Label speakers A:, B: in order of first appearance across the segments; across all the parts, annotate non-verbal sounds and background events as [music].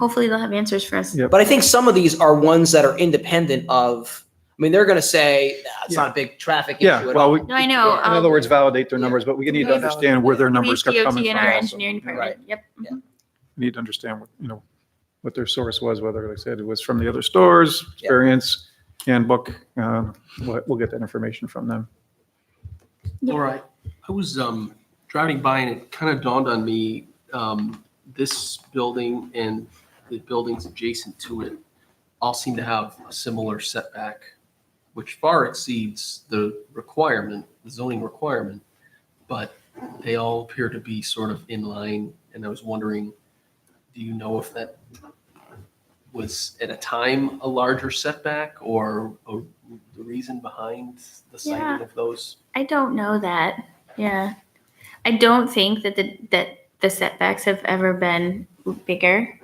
A: Hopefully they'll have answers for us.
B: Yeah.
C: But I think some of these are ones that are independent of, I mean, they're going to say, "Nah, it's not a big traffic
B: Yeah,
C: issue at
B: well,
C: all.
B: we,
A: No, I know.
B: in other
A: um,
B: words, validate their numbers, but we need to
A: Right.
B: understand where their numbers are
A: police, DOT
B: coming
A: and
B: from.
A: our
B: also.
A: engineering department. Yep.
C: Yeah.
A: Mhm.
B: We Need to understand, what you know, what their source was, whether, like I said, it was from the other stores,
C: Yeah.
B: experience, handbook. um, We'll we'll get that information from them.
A: Yeah.
D: All right. I was um, driving by and it kind of dawned on me, um, this building and the buildings adjacent to it all seem to have a similar setback, which far exceeds the requirement, the zoning requirement, but they all appear to be sort of in line. And I was wondering, do you know if that was at a time a larger setback or a- the reason behind the sighting
A: Yeah.
D: of those?
A: I don't know that. Yeah. I don't think that the that the setbacks have ever been bigger.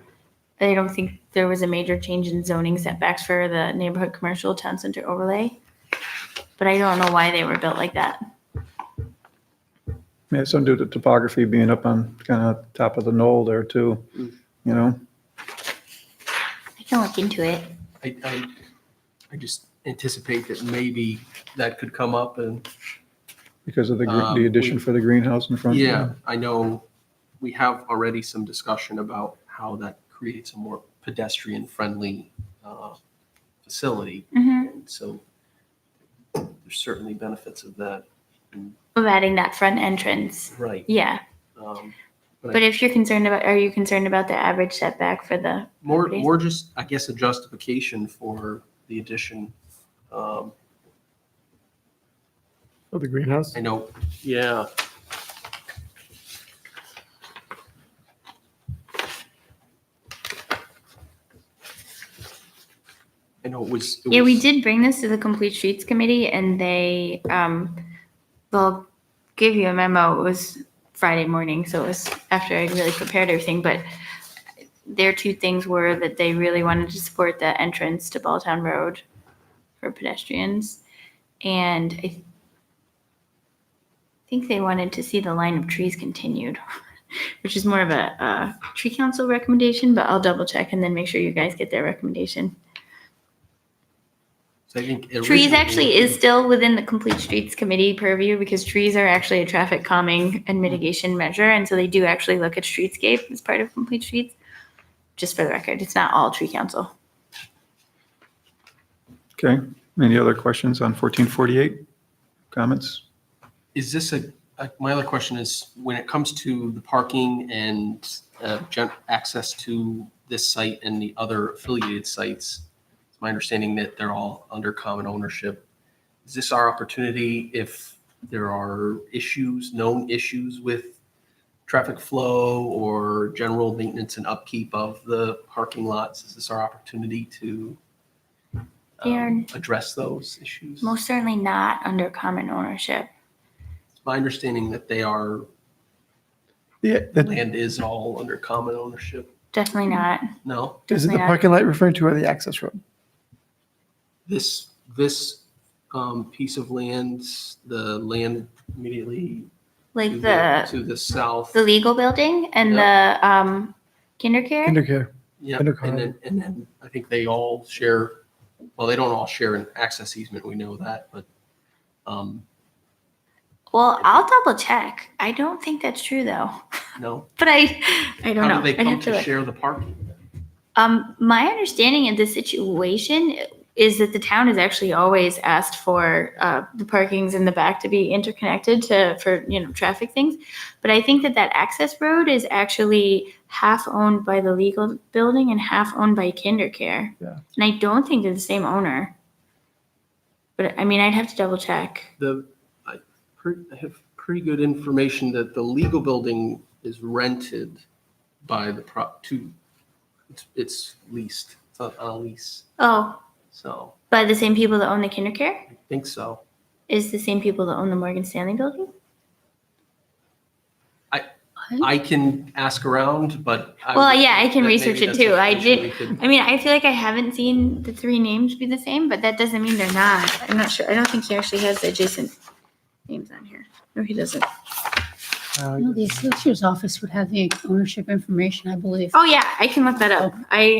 A: I don't think there was a major change in zoning setbacks for the neighborhood commercial town center overlay. But I don't know why they were built like that.
B: Yeah, some due to topography being up on kind of top of the knoll there too, you know?
A: I can look into it.
D: I, I, I just anticipate that maybe that could come up and,
B: Because of the, gre-
D: Um,
B: the
D: we-
B: addition for the greenhouse in front.
D: yeah, I know we have already some discussion about how that creates a more pedestrian-friendly, uh, facility.
A: Mm-hmm.
D: And so there's certainly benefits of that.
A: Of adding that front entrance.
D: Right.
A: Yeah.
D: Um,
A: But if you're concerned about, are you concerned about the average setback for the,
D: More,
A: Properties.
D: more just, I guess, a justification for the addition. Um,
E: Oh, the greenhouse?
D: I know, yeah. I know it was. it
A: yeah, we
D: was-
A: did bring this to the Complete Streets Committee and they, um, they'll give you a memo. It was Friday morning, so it was after I really prepared everything, but their two things were that they really wanted to support the entrance to Balltown Road for pedestrians. And I think they wanted to see the line of trees continued, [laughs] which is more of a, uh, tree council recommendation, but I'll double check and then make sure you guys get their recommendation.
D: so I think
A: Trees
D: originally-
A: actually is still within the Complete Streets Committee purview because trees are actually a traffic calming and mitigation measure. And so they do actually look at streetscape as part of Complete Streets. Just for the record, it's not all tree council.
B: Okay. Any other questions on 1448? Comments?
D: Is this a, uh, my other question is, when it comes to the parking and uh, gen- access to this site and the other affiliated sites, it's my understanding that they're all under common ownership. Is this our opportunity if there are issues, known issues with traffic flow or general maintenance and upkeep of the parking lots? Is this our opportunity to um,
A: Darren.
D: address those issues?
A: Most certainly not under common ownership.
D: It's my understanding that they are
E: Yeah, that-
D: land is all under common ownership.
A: Definitely not.
D: No,
E: isn't the
A: Yeah.
E: parking lot referring to or the access road?
D: this, this um, piece of land, the land immediately to
A: Like
D: the,
A: the,
D: to the south.
A: the legal building and the, um, kinder care.
E: Undercare.
D: Yeah,
E: under common.
D: and then, and then I think they all share, well, they don't all share an access easement, we know that, but um,
A: Well, I'll double check. I don't think that's true though,
D: no.
A: but I, I don't know.
D: How do they
A: I'd
D: come
A: have
D: to
A: look.
D: share the parking?
A: Um, my understanding of the situation is that the town has actually always asked for uh, the parkings in the back to be interconnected to for you know traffic things, but I think that that access road is actually half owned by the legal building and half owned by KinderCare.
E: Yeah.
A: And I don't think they're the same owner. But I mean, I'd have to double check.
D: The, I pre- I have pretty good information that the legal building is rented by the prop, to, it's- it's leased, it's on on a lease.
A: Oh,
D: So
A: by the same people that own the KinderCare
D: I think so.
A: is the same people that own the Morgan Stanley building.
D: I-
A: What?
D: I can ask around, but. I
A: Well,
D: would
A: yeah, I
D: think
A: can
D: that
A: research
D: maybe
A: it
D: that's
A: too. I did-
D: information we could-
A: I mean, I feel like I haven't seen the three names be the same, but that doesn't mean they're not. I'm not sure. I don't think he actually has the adjacent names on here. No, he doesn't.
E: Uh,
F: No, the assessor's office would have the ownership information, I believe.
A: Oh, yeah, I can look that up. I